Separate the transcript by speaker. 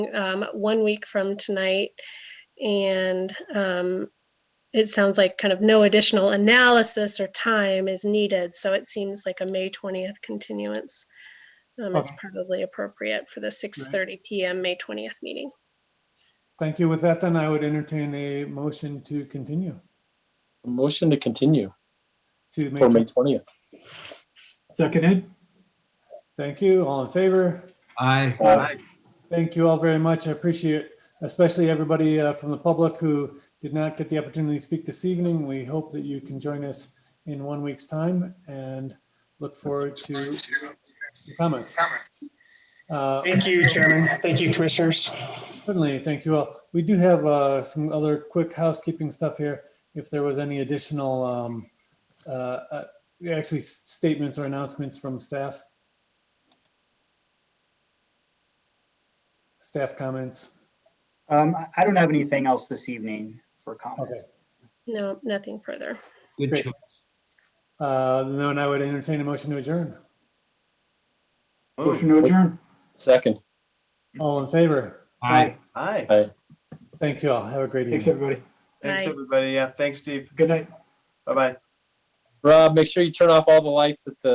Speaker 1: um, one week from tonight. And um, it sounds like kind of no additional analysis or time is needed. So it seems like a May 20th continuance um, is
Speaker 2: Okay.
Speaker 1: probably appropriate for the 6:30 PM, May 20th meeting.
Speaker 2: Thank you. With that, then I would entertain a motion to continue
Speaker 3: Motion to continue
Speaker 2: to May.
Speaker 3: for May
Speaker 2: 20th.
Speaker 3: twentieth.
Speaker 4: Seconded?
Speaker 2: Thank you. All in favor?
Speaker 5: Aye.
Speaker 3: Aye.
Speaker 2: Thank you all very much. I appreciate especially everybody uh, from the public who did not get the opportunity to speak this evening. We hope that you can join us in one week's time and look forward to your comments. Uh,
Speaker 6: Thank you, Chairman. Thank you, Commissioners.
Speaker 2: Certainly, thank you all. We do have uh, some other quick housekeeping stuff here. If there was any additional, um, uh, uh, actually s- statements or announcements from staff. Staff comments.
Speaker 7: Um, I- I don't have anything else this evening for comments.
Speaker 1: No, nothing further.
Speaker 5: Good
Speaker 2: Great.
Speaker 5: choice.
Speaker 2: Uh, Then I would entertain a motion to adjourn.
Speaker 4: Motion to adjourn?
Speaker 3: Second.
Speaker 2: All in favor?
Speaker 5: Aye.
Speaker 8: Hi.
Speaker 3: Aye.
Speaker 2: Thank you all. Have a great
Speaker 4: Thanks,
Speaker 2: evening.
Speaker 4: everybody.
Speaker 8: Thanks,
Speaker 1: Aye.
Speaker 8: everybody. Yeah, thanks, Steve.
Speaker 4: Good night.
Speaker 8: Bye-bye.
Speaker 3: Rob, make sure you turn off all the lights at the